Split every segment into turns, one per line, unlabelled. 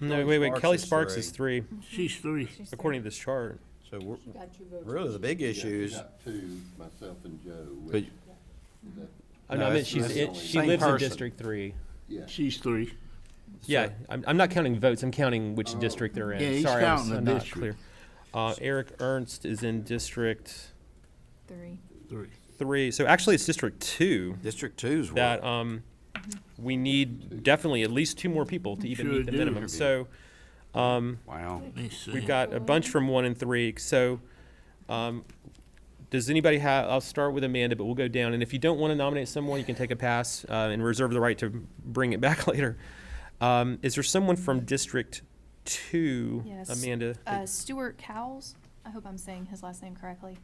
No, wait, wait,
Sparks
Kelly
is
Sparks
three.
is three,
She's three.
according to this chart.
So we're,
She got you voted.
really, the big issues,
Two, myself and Joe,
but,
which,
Oh,
No,
no, I mean,
it's-
she's,
it's
it- she
same
lives in
person.
District Three.
yeah.
She's three.
Yeah, I'm, I'm not counting votes, I'm counting which district they're
Oh. Yeah,
in.
he's
Sorry, I was
counting the
not
district.
clear. Uh, Eric Ernst is in District
Three.
Three.
Three, so actually it's District Two
District Two's were,
that, um, we need definitely at least two more people to even
Sure
meet the
do.
minimum. So, um,
wow.
Let me see.
We've got a bunch from one and three, so, um, does anybody have, I'll start with Amanda, but we'll go down, and if you don't wanna nominate someone, you can take a pass, uh, and reserve the right to bring it back later. Um, is there someone from District Two,
Yes.
Amanda?
Uh, Stuart Cowles, I hope I'm saying his last name correctly.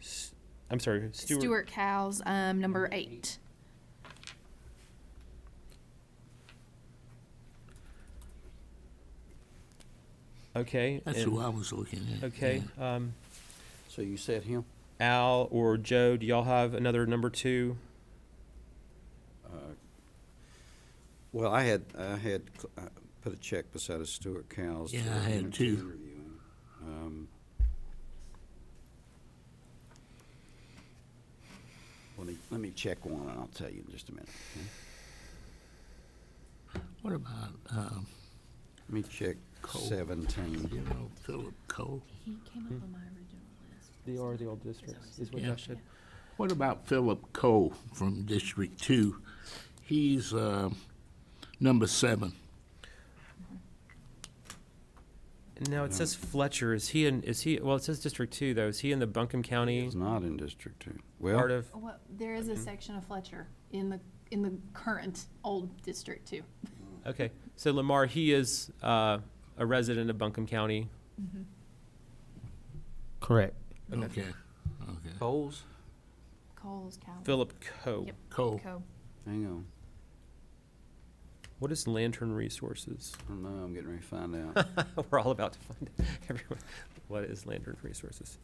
S- I'm sorry, Stuart?
Stuart Cowles, um, number eight.
Okay.
That's
and-
who I was looking at.
Okay, um,
So you said him?
Al or Joe, do y'all have another number two?
Well, I had, I had, cl- uh, put a check beside of Stuart Cowles. to
Yeah, I had
continue
two.
reviewing. Um, Let me, let me check one, and I'll tell you in just a minute. okay?
What about, um,
Let me check
Cole. you
seventeen.
know, Philip Cole?
He came up on my original list.
They are the old districts, is
what I Yeah. said. What about Philip Cole from District Two? He's, uh, number seven.
No, it says Fletcher, is he in, is he, well, it says District Two, though, is he in the Buncombe County
He's not in District Two.
part
Well,
of?
What, there is a section of Fletcher in the, in the current old district too.
Okay, so Lamar, he is uh, a resident of Buncombe County.
Correct.
Okay. Okay.
Coles,
Coles, Cowles.
Philip Coe.
Yep.
Cole.
Co.
hang on,
What is Lantern Resources?
I don't know, I'm getting ready to find out.
We're all about to find out. Everyone, what is Lantern Resources?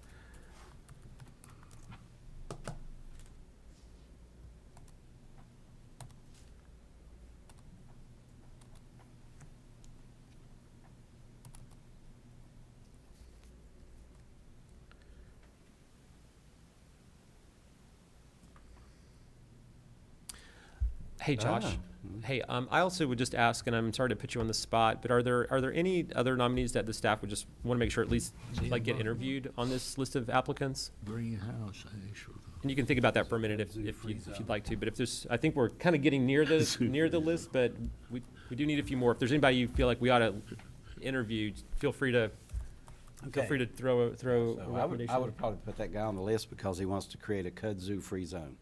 Hey, Josh.
Ah.
Hey, um, I also would just ask, and I'm sorry to put you on the spot, but are there, are there any other nominees that the staff would just want to make sure at least, like, get interviewed on this list of applicants?
Greenhouse, actually.
And you can think about that for a minute if, if you- if you'd like to, but if there's, I think we're kind of getting near the, near the list, but we, we do need a few more. If there's anybody you feel like we ought to interview, feel free to, feel
Okay.
free to throw, a- throw a
So I would, I
recommendation.
would probably put that guy on the list because he wants to create a kudzu free zone.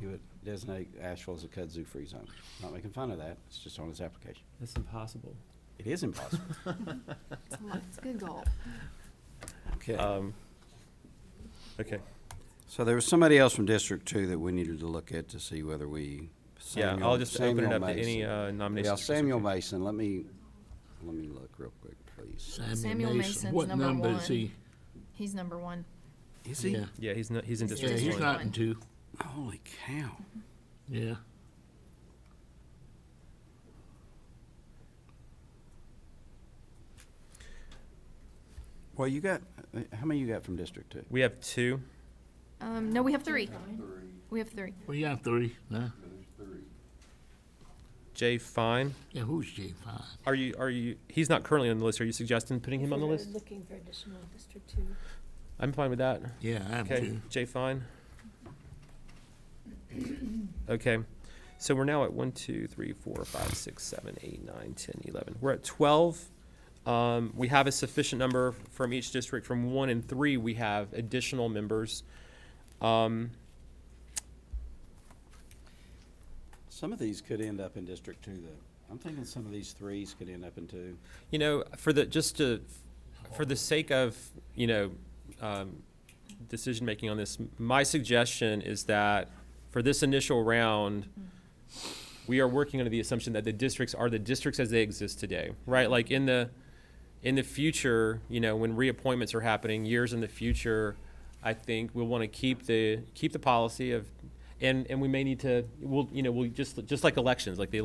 He would designate Asheville as a kudzu free zone. Not making fun of that, it's just on his application.
That's impossible.
It is impossible.
It's a lot- it's a good goal.
Okay,
Um, okay,
so there was somebody else from District Two that we needed to look at to see whether we.
yeah, I'll
Samuel-
just open it
Samuel
up to any
Mason.
uh,
Yeah,
nominations. for
Samuel
certificate.
Mason, let me, let me look real quick, please.
Samuel Mason's
What
number
number is
one.
he?
He's number one.
Is
Yeah,
Yeah, he's not, he's in
yeah,
District
he's
One.
not in
one.
two.
Holy cow.
Yeah.
Well, you got, uh, how many you got from District Two?
We have two.
Um, no, we have three. We have three.
We got three, no?
Jay Fine.
Yeah, who's J five?
Are you, are you, he's not currently on the list. Are you suggesting putting him on the
We're
list?
Looking for additional District Two.
I'm fine with that.
Yeah, I am
Okay,
too.
Jay Fine. Okay, so we're now at one, two, three, four, five, six, seven, eight, nine, ten, eleven. We're at twelve. Um, we have a sufficient number from each district. From one and three, we have additional members. Um,
Some of these could end up in District Two, though. I'm thinking some of these threes could end up in two.
You know, for the, just to, for the sake of, you know, um, decision-making on this, my suggestion is that for this initial round, we are working under the assumption that the districts are the districts as they exist today, right? Like in the, in the future, you know, when reappointments are happening, years in the future, I think we'll want to keep the, keep the policy of, and, and we may need to, we'll, you know, we'll just, just like elections, like the